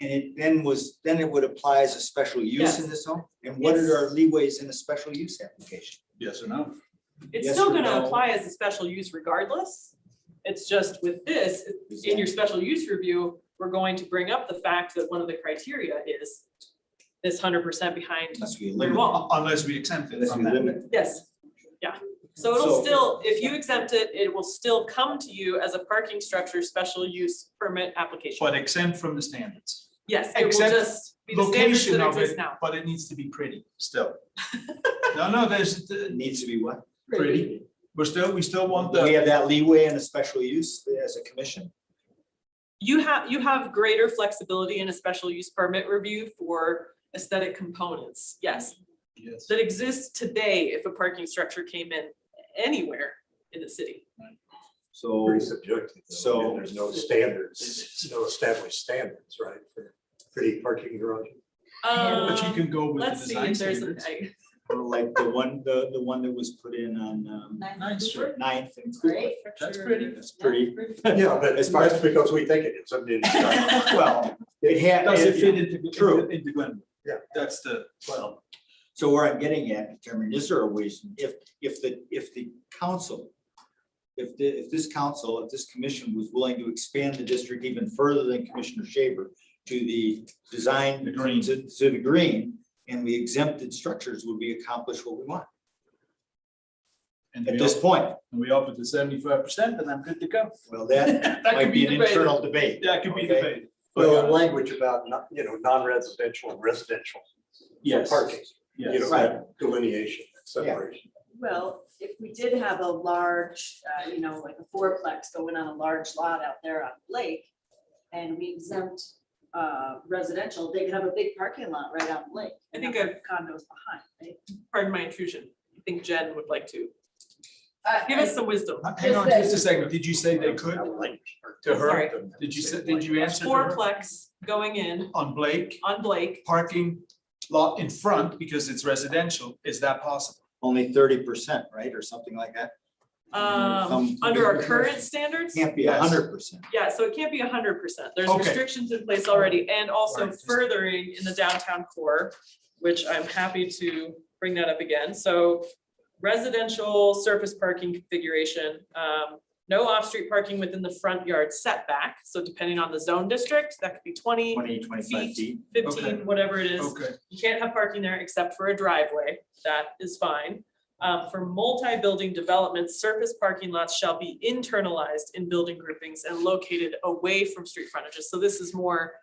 And it then was, then it would apply as a special use in Yes. the zone? And what are our leeways in a special use application? Yes or no? It's Yes still or gonna no? apply as a special use regardless. It's just with this, in your special use review, we're going to bring up the fact that one of the criteria is this hundred percent behind Unless we clear eliminate, wall. Unless we exempt it unless from we that. limit, Yes, yeah. So it'll So- still, if you exempt it, it will still come to you as a parking structure special use permit application. But exempt from the standards. Yes, it will except just be the standards Location that of exist it, now. but it needs to be pretty still. No, no, there's, uh, it needs to be what? pretty, we're still, we still want Do We the, have that leeway in a special use as a commission? You have, you have greater flexibility in a special use permit review for aesthetic components, yes. yes, that exists today if a parking structure came in anywhere in the city. So, Pretty subjective. though. So- I mean, There's no standards, no established standards, right, for pretty parking garage. but you Um, can go with the Let's see design if there's, an- standards. I- like the one, the, the one that was put in on, um, Nice, sure. ninth and Cooper. Great. That's pretty. That's pretty, Yeah, but As that's far as- because we think it is, I mean, it's not- well, it had. Does it fit into, True. into, into Glenwood? Yeah. That's the, well, So where I'm getting at, Chairman, is there a reason, if, if the, if the council, if the, if this council, if this commission was willing to expand the district even further than Commissioner Shaver to the design. The green. To, to the green, and we exempted structures, would we accomplish what we want and at we this offer, point? and we offer the seventy-five percent, and I'm good to go. Well, that That might could be be an debated. internal debate. That could be Okay. debated. well, the But, uh, language about, not- you know, non-residential and residential Yes, parking, you know, yes. that delineation, that separation. Well, if we did have a large, uh, you know, like a fourplex going on a large lot out there on the Lake, and we exempt uh, residential, they could have a big parking lot right out on the lake. I and think have I've- Condos behind, right? pardon my intrusion, I think Jen would like to, I- Uh, give us some wisdom. Hang on just a second, did you say they could? That language. To her? Sorry. Did you, say- did you answer her? Fourplex going in on Blake, on Blake, parking lot in front because it's residential, is that possible? Only thirty percent, right, or something like that? um, Mm-hmm. Some- under our current standards. Can't be Yes. hundred percent. Yeah, so it can't be hundred percent. There's Okay. restrictions in place already and also Right, just- furthering in the downtown core, which I'm happy to bring that up again. So residential surface parking configuration, um, no off-street parking within the front yard setback. So depending on the zone district, that could be 20, Twenty, twenty-five Feet. feet. 15, Okay. whatever it is. Okay, You can't have parking there except for a driveway. That is fine. Um, for multi-building developments, surface parking lots shall be internalized in building groupings and located away from street frontages. So this is more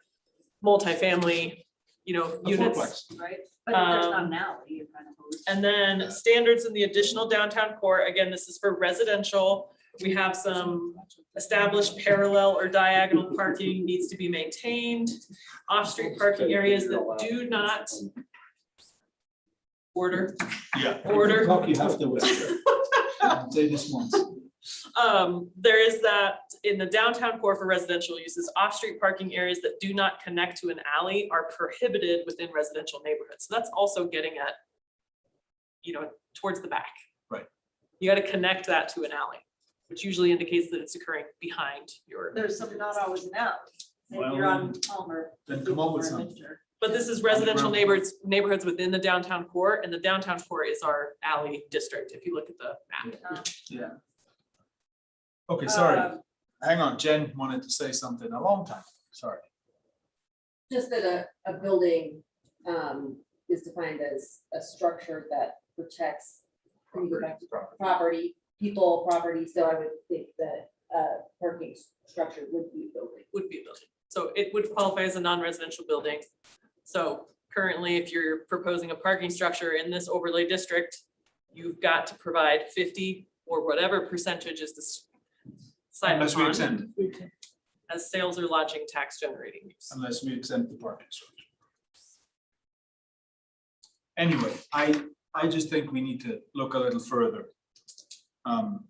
multifamily, you know, a units. fourplex, Right? But if there's not Um, an alley, you're kind of. lose- And then standards in the additional downtown core, again, this is for residential. We have some established parallel or diagonal parking needs to be maintained. Off-street parking areas that do not order. yeah. Order. You have to whisper. Say this once. Um, there is that in the downtown core for residential uses, off-street parking areas that do not connect to an alley are prohibited within residential neighborhoods. So that's also getting at, you know, towards the back. Right. You gotta connect that to an alley, which usually indicates that it's occurring behind your. There's some, not always an alley. If you're Well, um, on Palmer. Then come up with or something. Windsor. But this is residential Underground. neighborhoods, neighborhoods within the downtown core, and the downtown core is our alley district, if you look at the map. Okay, sorry, Um, hang on, Jen wanted to say something a long time, sorry. Just that a, a building, um, is defined as a structure that protects when you go back to property, people, property, so I would think that, uh, parking s- structure would be a building. would be a building. So it would qualify as a non-residential building. So currently, if you're proposing a parking structure in this overlay district, you've got to provide fifty or whatever percentage is this side Unless we upon exempt, it, as sales or lodging tax generating use. unless we exempt the parking structure. Anyway, I, I just think we need to look a little further. Um,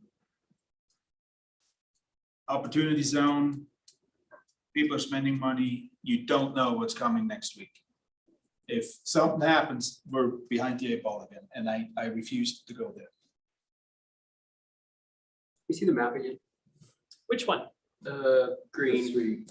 Opportunity zone, people are spending money, you don't know what's coming next week. If something happens, we're behind the eight ball again, and I, I refuse to go there. You see the map again? Which one? The green.